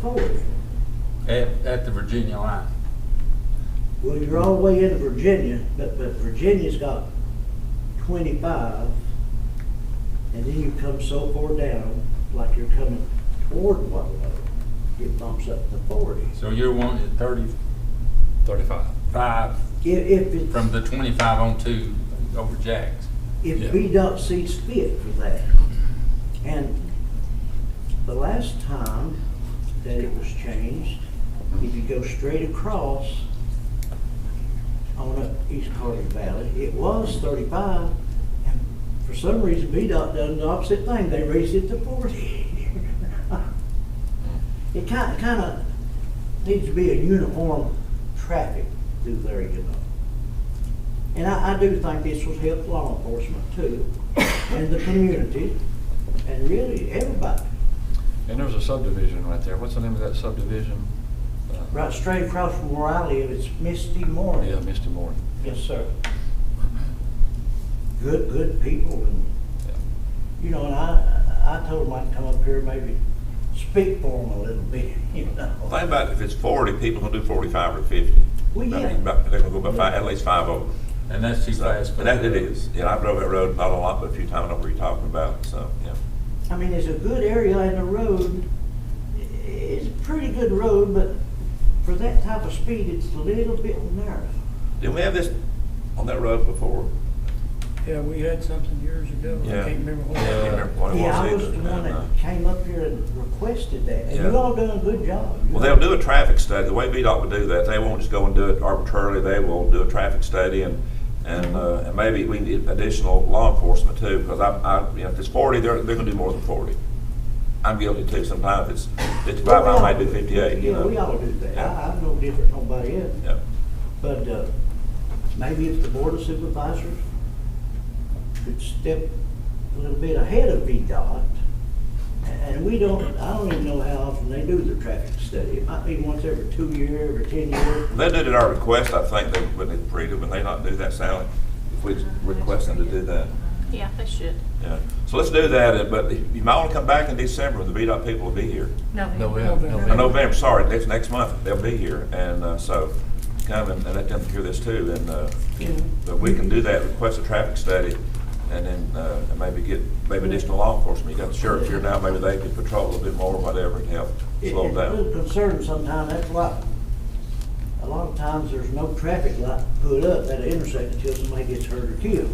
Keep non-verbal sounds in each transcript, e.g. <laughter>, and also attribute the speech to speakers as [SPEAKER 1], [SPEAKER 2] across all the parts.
[SPEAKER 1] forty.
[SPEAKER 2] at, at the Virginia line.
[SPEAKER 1] Well, you're all the way into Virginia, but, but Virginia's got twenty-five, and then you come so far down, like you're coming toward Waterloo, it bumps up to forty.
[SPEAKER 2] So you're wanting thirty-five
[SPEAKER 3] Thirty-five.
[SPEAKER 1] If, if it's.
[SPEAKER 2] from the twenty-five on two over Jack's.
[SPEAKER 1] if
[SPEAKER 3] Yeah.
[SPEAKER 1] VDOT sees fit for that. And the last time that it was changed, if you go straight across on up East Carter Valley, it was thirty-five. And for some reason, VDOT done the opposite thing, they raised it to forty. <laughs> It kind, kind of needs to be a uniform traffic through there, you know. And I, I do think this will help law enforcement too, and the community, and really everybody.
[SPEAKER 3] And there's a subdivision right there. What's the name of that subdivision? Uh,
[SPEAKER 1] Right straight across from where I live, it's Misty Moore.
[SPEAKER 3] Yeah, Misty Moore.
[SPEAKER 1] Yes, sir. Good, good people, and,
[SPEAKER 3] Yeah.
[SPEAKER 1] you know, and I, I told them I'd come up here, maybe speak for them a little bit, <laughs> you
[SPEAKER 4] Think
[SPEAKER 1] know.
[SPEAKER 4] about if it's forty, people gonna do forty-five or fifty.
[SPEAKER 1] Well,
[SPEAKER 4] I
[SPEAKER 1] yeah.
[SPEAKER 4] mean, about- They're gonna go by five, at least five over.
[SPEAKER 2] And that's too fast. for
[SPEAKER 4] And that it is, yeah, I drove that road, not a lot, but a few times, I know what you're talking about, so, yeah.
[SPEAKER 1] I mean, it's a good area and the road, i- it's a pretty good road, but for that type of speed, it's a little bit narrow.
[SPEAKER 4] Didn't we have this on that road before?
[SPEAKER 5] Yeah, we had something years ago, I
[SPEAKER 4] Yeah.
[SPEAKER 5] can't remember what.
[SPEAKER 4] I
[SPEAKER 5] it
[SPEAKER 4] can't
[SPEAKER 5] was.
[SPEAKER 4] remember what it
[SPEAKER 1] Yeah, I
[SPEAKER 4] was
[SPEAKER 1] was the
[SPEAKER 4] either.
[SPEAKER 1] one
[SPEAKER 4] No, no.
[SPEAKER 1] that came up here and requested that, and
[SPEAKER 4] Yeah.
[SPEAKER 1] you all done a good job.
[SPEAKER 4] Well, they'll do a traffic study. The way VDOT would do that, they won't just go and do it arbitrarily. They will do a traffic study and, and, uh, and maybe we need additional law enforcement too, because I, I, you know, if it's forty, they're, they're gonna do more than forty. I'm guilty too sometimes. It's fifty-five, I might do fifty-eight, you
[SPEAKER 1] Yeah, we all
[SPEAKER 4] know?
[SPEAKER 1] do that,
[SPEAKER 4] Yeah.
[SPEAKER 1] I, I'm no different from nobody else,
[SPEAKER 4] Yeah.
[SPEAKER 1] but, uh, maybe if the board of supervisors could step a little bit ahead of VDOT, and we don't, I don't even know how often they do the traffic study, it might be once every two year, every ten year.
[SPEAKER 4] They did it at our request, I think, they, when they agreed it, when they not do that, Sally, if we request them to do that.
[SPEAKER 6] Yeah, they should.
[SPEAKER 4] Yeah. So let's do that, but you might wanna come back in December when the VDOT people will be here.
[SPEAKER 3] No, we have,
[SPEAKER 4] Uh,
[SPEAKER 3] no, we
[SPEAKER 4] November, sorry, next, next month, they'll be here, and, uh, so, come and, and let them hear this too, and, uh, but we can do that, request a traffic study, and then, uh, and maybe get, maybe additional law enforcement, you got the sheriff here now, maybe they could patrol a little bit more, whatever, to help
[SPEAKER 1] It-
[SPEAKER 4] slow
[SPEAKER 1] It's a little
[SPEAKER 4] down.
[SPEAKER 1] concerning sometimes, that's why, a lot of times, there's no traffic light put up at an intersection until somebody gets hurt or killed.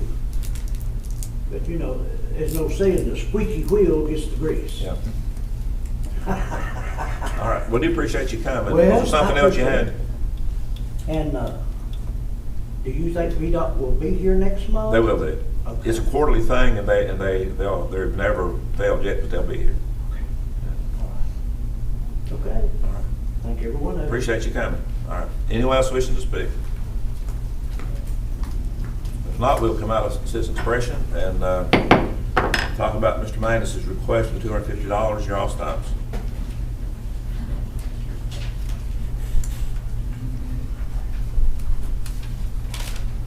[SPEAKER 1] But you know, there's no saying, the squeaky wheel gets the grease.
[SPEAKER 4] Yeah.
[SPEAKER 1] <laughs>
[SPEAKER 4] All right, well, do appreciate you coming, was
[SPEAKER 1] Well,
[SPEAKER 4] there something
[SPEAKER 1] I
[SPEAKER 4] else you
[SPEAKER 1] appreciate
[SPEAKER 4] had?
[SPEAKER 1] it. And, uh, do you think VDOT will be here next month?
[SPEAKER 4] They will do.
[SPEAKER 1] Okay.
[SPEAKER 4] It's a quarterly thing, and they, and they, they'll, they've never failed yet, but they'll be here.
[SPEAKER 1] All right. Okay,
[SPEAKER 4] All right.
[SPEAKER 1] thank everyone. else.
[SPEAKER 4] Appreciate you coming. All right. Anyone else wishing to speak? If not, we'll come out of citizen expression and uh, talk about Mr. Magnus's request for two hundred and fifty dollars, your all stops.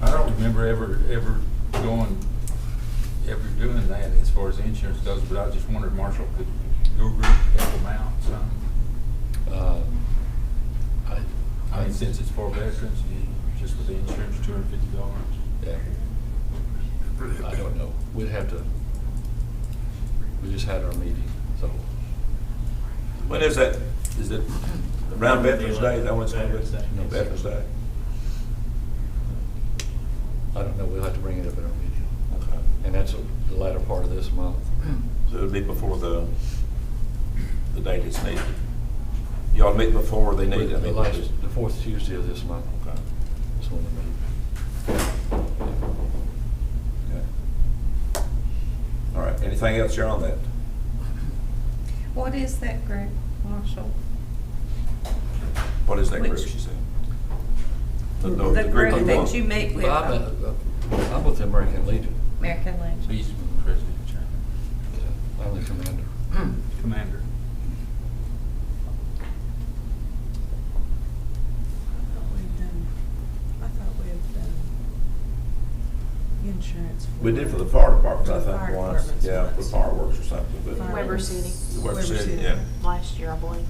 [SPEAKER 2] I don't remember ever, ever going, ever doing that as far as insurance goes, but I just wondered, Marshall, could your group help them out some?
[SPEAKER 3] Uh, I,
[SPEAKER 2] I mean, since it's for veterans, you- just with the insurance, two hundred and fifty dollars.
[SPEAKER 3] yeah. I don't know. We'd have to, we just had our meeting, so.
[SPEAKER 4] When is that? Is it around Veterans Day? Is that when it's going to be?
[SPEAKER 7] Veterans Day.
[SPEAKER 4] No, Veterans Day.
[SPEAKER 3] I don't know. We'll have to bring it up at our meeting.
[SPEAKER 4] Okay.
[SPEAKER 3] And that's the latter part of this month.
[SPEAKER 4] So it'll be before the, the date it's needed. Y'all meet before they need it.
[SPEAKER 3] The last, the fourth Tuesday of this month. That's when we meet.
[SPEAKER 4] Okay. All right. Anything else you're on that?
[SPEAKER 8] What is that group, Marshall?
[SPEAKER 4] What is that group
[SPEAKER 8] Which-
[SPEAKER 4] she said?
[SPEAKER 8] The group
[SPEAKER 4] you
[SPEAKER 8] that
[SPEAKER 4] want.
[SPEAKER 8] you meet with,
[SPEAKER 3] But I'm,
[SPEAKER 8] uh,
[SPEAKER 3] a- I'm with the American Legion.
[SPEAKER 8] American Legion.
[SPEAKER 2] He's president, chairman,
[SPEAKER 3] I'm the commander.
[SPEAKER 2] commander.
[SPEAKER 9] I thought we'd done, I thought we had done insurance. for-
[SPEAKER 4] We did for the fire department, I
[SPEAKER 9] For the fire
[SPEAKER 4] think, once,
[SPEAKER 9] departments
[SPEAKER 4] yeah, for
[SPEAKER 9] once.
[SPEAKER 4] fireworks or something, but.
[SPEAKER 9] Fire-
[SPEAKER 6] Weber City
[SPEAKER 4] Weber City, yeah.
[SPEAKER 6] last year, I believe.